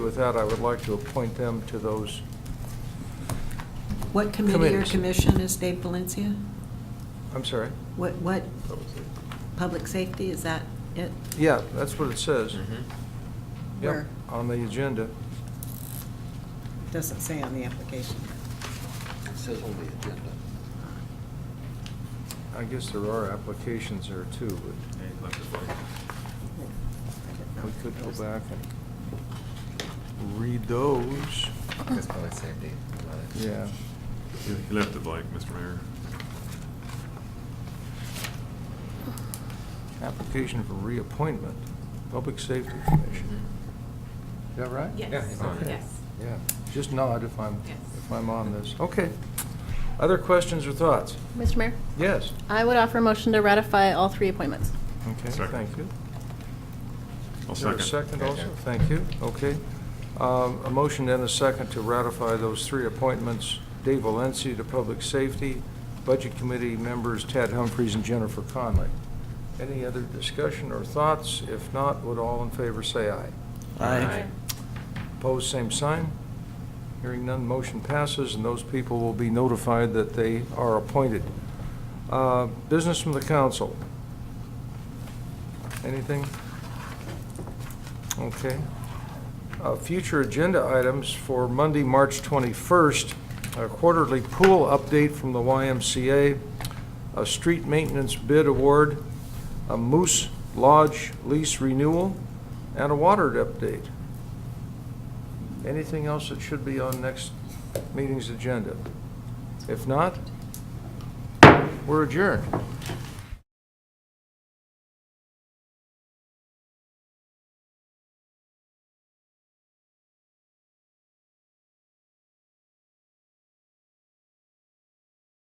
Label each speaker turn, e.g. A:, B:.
A: with that, I would like to appoint them to those,
B: What committee or
A: Committees.
B: commission is Dave Valencia?
A: I'm sorry.
B: What, what, public safety, is that it?
A: Yeah, that's what it says.
C: Mm-hmm.
A: Yep,
B: Where?
A: On the agenda.
B: Doesn't say on the application.
D: It says on the agenda.
A: I guess there are applications there too, but we could go back and read those.
D: That's probably the same date.
A: Yeah.
E: He he left it blank, Mr. Mayor.
A: Application for reappointment, Public Safety Commission. Is that right?
C: Mm-hmm. Yes,
D: Yeah.
A: Okay.
C: yes.
A: Yeah, just nod if I'm,
C: Yes.
A: if I'm on this. Okay. Other questions or thoughts?
F: Mr. Mayor,
A: Yes?
F: I would offer a motion to ratify all three appointments.
A: Okay,
E: Second.
A: thank you.
E: I'll
A: Is there a
E: second.
A: second also? Thank you, okay. Um, A motion and a second to ratify those three appointments. Dave Valencia to Public Safety, Budget Committee members Tad Humphries and Jennifer Conley. Any other discussion or thoughts? If not, would all in favor say aye?
D: Aye.
A: Opposed, same sign. Hearing none, motion passes, and those people will be notified that they are appointed. Uh, Business from the council. Anything? Okay. Uh, Future agenda items for Monday, March 21st, a quarterly pool update from the YMCA, a street maintenance bid award, a Moose Lodge lease renewal, and a water update. Anything else that should be on next meeting's agenda? If not, we're adjourned.